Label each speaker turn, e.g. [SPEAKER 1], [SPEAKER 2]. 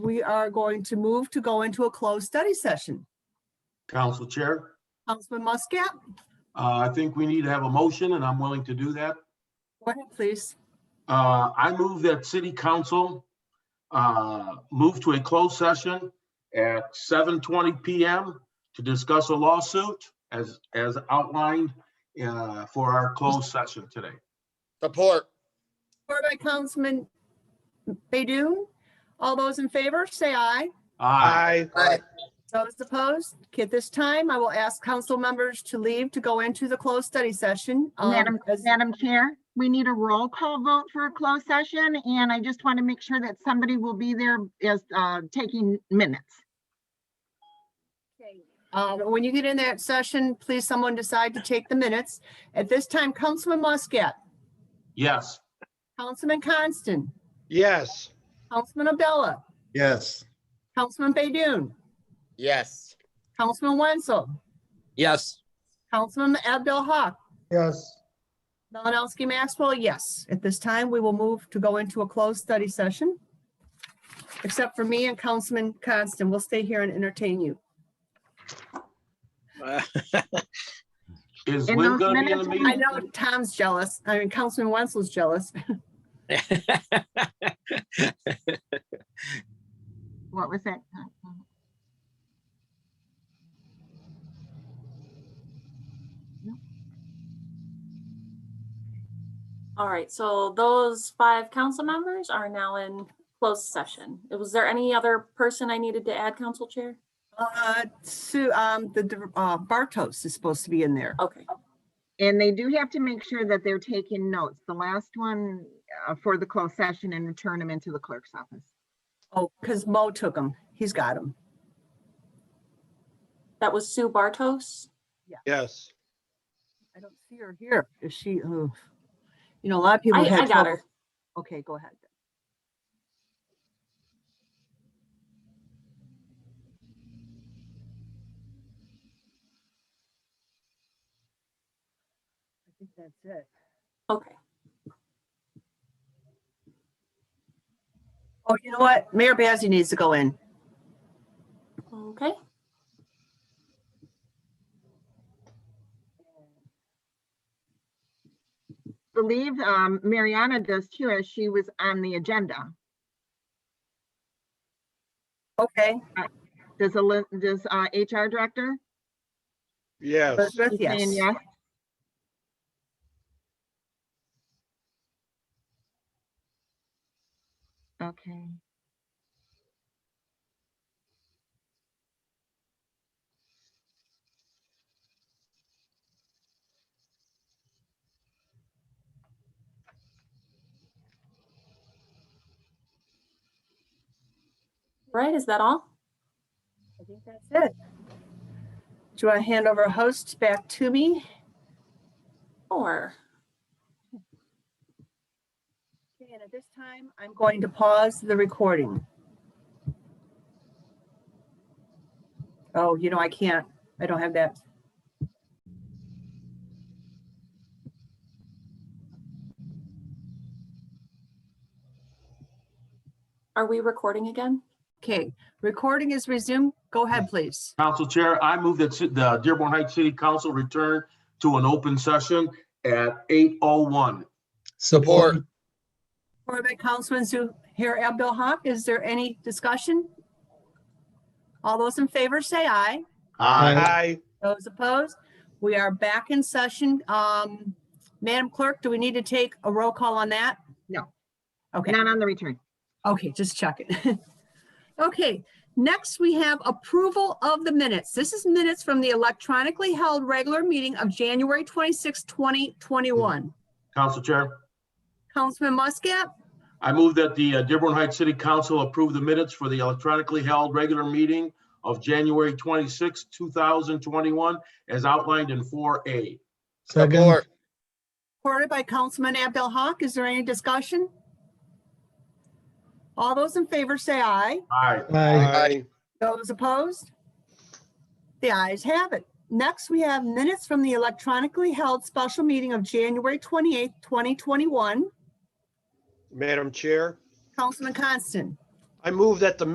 [SPEAKER 1] we are going to move to go into a closed study session.
[SPEAKER 2] Council Chair,
[SPEAKER 1] Councilman Muscat,
[SPEAKER 2] uh, I think we need to have a motion, and I'm willing to do that.
[SPEAKER 1] go ahead, please.
[SPEAKER 2] Uh, I move that city council uh, move to a closed session at 7:20 PM to discuss a lawsuit as, as outlined uh, for our closed session today.
[SPEAKER 3] Support.
[SPEAKER 1] Support by Councilman Baydun. All those in favor, say aye.
[SPEAKER 2] Aye.
[SPEAKER 3] Aye.
[SPEAKER 1] Those opposed? Okay, at this time, I will ask council members to leave to go into the closed study session. Um,
[SPEAKER 4] Madam,
[SPEAKER 1] as-
[SPEAKER 4] Madam Chair, we need a roll call vote for a closed session, and I just want to make sure that somebody will be there as uh, taking minutes.
[SPEAKER 1] Uh, When you get in that session, please someone decide to take the minutes. At this time, Councilman Muscat,
[SPEAKER 2] Yes.
[SPEAKER 1] Councilman Constant,
[SPEAKER 3] Yes.
[SPEAKER 1] Councilman Abdullah,
[SPEAKER 5] Yes.
[SPEAKER 1] Councilman Baydun,
[SPEAKER 3] Yes.
[SPEAKER 1] Councilman Wenzel,
[SPEAKER 3] Yes.
[SPEAKER 1] Councilman Abdul Hawk,
[SPEAKER 5] Yes.
[SPEAKER 1] Malinowski Maxwell, yes. At this time, we will move to go into a closed study session. Except for me and Councilman Constant, we'll stay here and entertain you.
[SPEAKER 2] Is
[SPEAKER 4] In
[SPEAKER 2] Lynn
[SPEAKER 4] those
[SPEAKER 2] gonna be in the
[SPEAKER 4] minutes,
[SPEAKER 1] I
[SPEAKER 2] meeting?
[SPEAKER 1] know Tom's jealous. I mean, Councilman Wenzel's jealous.
[SPEAKER 4] What was that?
[SPEAKER 6] All right, so those five council members are now in closed session. Was there any other person I needed to add, Council Chair?
[SPEAKER 1] Uh, Sue, um, the- the, uh, Bartos is supposed to be in there.
[SPEAKER 6] Okay,
[SPEAKER 4] And they do have to make sure that they're taking notes. The last one uh, for the closed session and return them into the clerk's office.
[SPEAKER 1] Oh, because Mo took him. He's got him.
[SPEAKER 6] that was Sue Bartos.
[SPEAKER 3] Yes.
[SPEAKER 1] I don't see her here. Is she, oh, you know, a lot of people
[SPEAKER 6] I,
[SPEAKER 1] had
[SPEAKER 6] I got
[SPEAKER 1] trouble.
[SPEAKER 6] her.
[SPEAKER 1] Okay, go ahead. I think that's it.
[SPEAKER 6] Okay.
[SPEAKER 1] Oh, you know what? Mayor Bazey needs to go in.
[SPEAKER 6] Okay,
[SPEAKER 4] Believe um, Mariana does too, as she was on the agenda.
[SPEAKER 1] Okay,
[SPEAKER 4] Does, Eli- does uh, HR Director?
[SPEAKER 3] Yes.
[SPEAKER 1] Elizabeth,
[SPEAKER 4] She's saying
[SPEAKER 1] yes.
[SPEAKER 4] yes. Okay.
[SPEAKER 6] right, is that all?
[SPEAKER 1] I think that's it. Do you want to hand over hosts back to me?
[SPEAKER 6] Or,
[SPEAKER 1] Okay, And at this time, I'm going to pause the recording. Oh, you know, I can't. I don't have that.
[SPEAKER 6] are we recording again?
[SPEAKER 1] Okay, recording is resumed. Go ahead, please.
[SPEAKER 2] Council Chair, I move that ci- the Dearborn Heights City Council return to an open session at 8:01.
[SPEAKER 3] Support.
[SPEAKER 1] Supported by Councilman Zuhair Abdulhak. Is there any discussion? All those in favor, say aye.
[SPEAKER 3] Aye.
[SPEAKER 1] Those opposed? We are back in session. Um, Madam Clerk, do we need to take a roll call on that?
[SPEAKER 4] No.
[SPEAKER 1] Okay.
[SPEAKER 4] Not on the return.
[SPEAKER 1] Okay, just check it. Okay, next we have approval of the minutes. This is minutes from the electronically held regular meeting of January 26, 2021.
[SPEAKER 2] Council Chair.
[SPEAKER 1] Councilman Muscat,
[SPEAKER 2] I move that the uh, Dearborn Heights City Council approve the minutes for the electronically held regular meeting of January 26, 2021, as outlined in 4A.
[SPEAKER 5] Second.
[SPEAKER 3] Support.
[SPEAKER 1] supported by Councilman Abdalhak. Is there any discussion? All those in favor say aye.
[SPEAKER 2] Aye.
[SPEAKER 5] Aye.
[SPEAKER 1] Those opposed? The ayes have it. Next, we have minutes from the electronically held special meeting of January 28, 2021.
[SPEAKER 7] Madam Chair,
[SPEAKER 1] Councilman Constant.
[SPEAKER 7] I move that the